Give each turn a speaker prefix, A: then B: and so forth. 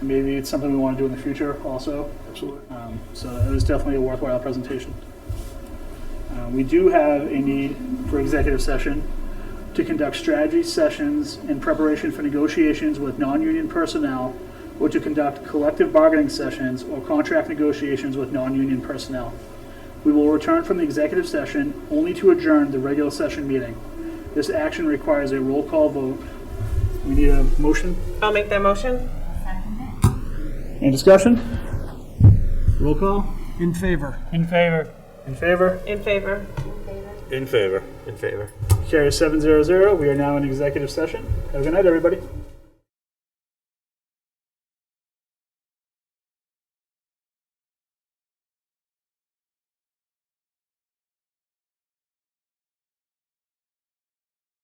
A: maybe it's something we want to do in the future also.
B: Absolutely.
A: Um, so it was definitely a worthwhile presentation. Uh, we do have a need for executive session to conduct strategy sessions in preparation for negotiations with non-union personnel or to conduct collective bargaining sessions or contract negotiations with non-union personnel. We will return from the executive session only to adjourn the regular session meeting. This action requires a roll call vote. We need a motion?
C: I'll make that motion.
A: Any discussion? Roll call?
D: In favor.
A: In favor. In favor?
C: In favor.
B: In favor.
E: In favor.
A: Carrier seven zero zero, we are now in executive session. Have a good night, everybody.